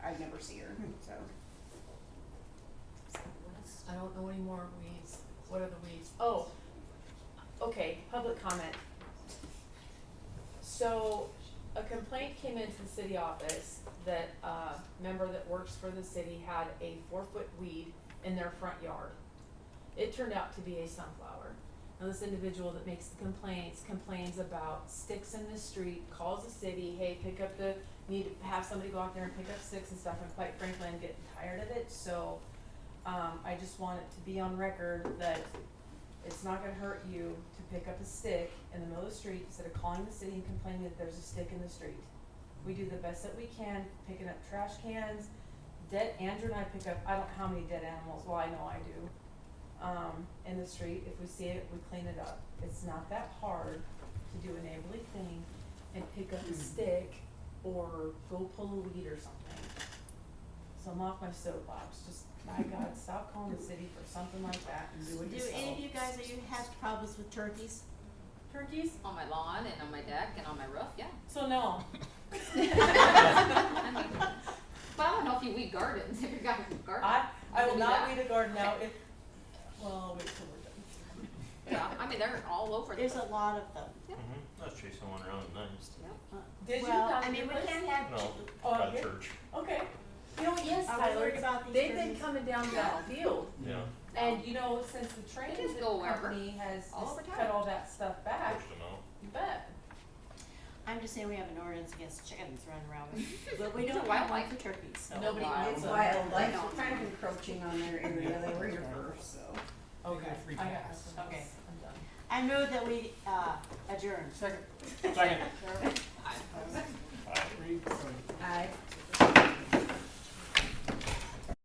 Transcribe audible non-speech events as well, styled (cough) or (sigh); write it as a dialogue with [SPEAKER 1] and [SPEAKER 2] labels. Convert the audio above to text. [SPEAKER 1] never see her, so.
[SPEAKER 2] I don't know any more weeds. What are the weeds? Oh, okay, public comment. So, a complaint came into the city office that a member that works for the city had a four-foot weed in their front yard. It turned out to be a sunflower. Now, this individual that makes the complaints complains about sticks in the street, calls the city, hey, pick up the, need to have somebody go out there and pick up sticks and stuff, and quite frankly, I'm getting tired of it, so um, I just want it to be on record that it's not gonna hurt you to pick up a stick in the middle of the street instead of calling the city and complaining that there's a stick in the street. We do the best that we can, picking up trash cans, dead, Andrew and I pick up, I don't know how many dead animals, well, I know I do. Um, in the street, if we see it, we clean it up. It's not that hard to do a neighborly thing and pick up a stick or go pull a weed or something. So I'm off my soapbox, just, my God, stop calling the city for something like that and do it
[SPEAKER 3] Do
[SPEAKER 2] yourself.
[SPEAKER 3] any of you guys, are you have problems with turkeys?
[SPEAKER 2] Turkeys?
[SPEAKER 4] on my lawn and on my deck and on my roof, yeah.
[SPEAKER 2] So no.
[SPEAKER 4] I mean, but I don't know if you weed gardens, if you're gonna garden.
[SPEAKER 2] I, I will
[SPEAKER 4] Do
[SPEAKER 2] not
[SPEAKER 4] that.
[SPEAKER 2] weed a garden out if, well, I'll wait till we're done.
[SPEAKER 4] Yeah, I mean, they're all over the
[SPEAKER 3] There's
[SPEAKER 4] place.
[SPEAKER 3] a lot of them.
[SPEAKER 5] Mm-hmm. I was chasing one around at night.
[SPEAKER 3] Uh,
[SPEAKER 2] Did you
[SPEAKER 3] Well,
[SPEAKER 2] not
[SPEAKER 3] I mean,
[SPEAKER 2] do
[SPEAKER 3] we
[SPEAKER 2] this?
[SPEAKER 3] can't have.
[SPEAKER 5] No,
[SPEAKER 2] Oh,
[SPEAKER 5] by
[SPEAKER 2] okay.
[SPEAKER 5] church.
[SPEAKER 2] Okay. You know, yes,
[SPEAKER 3] I was
[SPEAKER 2] Tyler,
[SPEAKER 3] worried about these
[SPEAKER 2] they've been
[SPEAKER 3] turkeys.
[SPEAKER 2] coming down that field.
[SPEAKER 5] Yeah.
[SPEAKER 2] And you know, since the train
[SPEAKER 4] just go wherever.
[SPEAKER 2] company has
[SPEAKER 4] All
[SPEAKER 2] just
[SPEAKER 4] over
[SPEAKER 2] cut
[SPEAKER 4] town.
[SPEAKER 2] all that stuff back,
[SPEAKER 5] Pushed them out.
[SPEAKER 2] you bet.
[SPEAKER 3] I'm just saying we have an ordinance against chickens running around (laughs) with, but we
[SPEAKER 4] It's a
[SPEAKER 3] don't have one
[SPEAKER 4] wildlife.
[SPEAKER 3] for turkeys, so.
[SPEAKER 2] Nobody
[SPEAKER 4] wild.
[SPEAKER 2] needs
[SPEAKER 1] It's
[SPEAKER 2] them.
[SPEAKER 1] wildlife,
[SPEAKER 4] Yeah.
[SPEAKER 1] we're kind of encroaching on their area, they were
[SPEAKER 3] (laughs)
[SPEAKER 1] here first, so.
[SPEAKER 2] Okay,
[SPEAKER 6] free
[SPEAKER 2] I got
[SPEAKER 6] pass.
[SPEAKER 2] this one.
[SPEAKER 3] Okay.
[SPEAKER 2] I'm done.
[SPEAKER 3] I move that we, uh, adjourn.
[SPEAKER 6] Second. Second.
[SPEAKER 4] I-
[SPEAKER 6] Three, sorry.
[SPEAKER 1] Aye.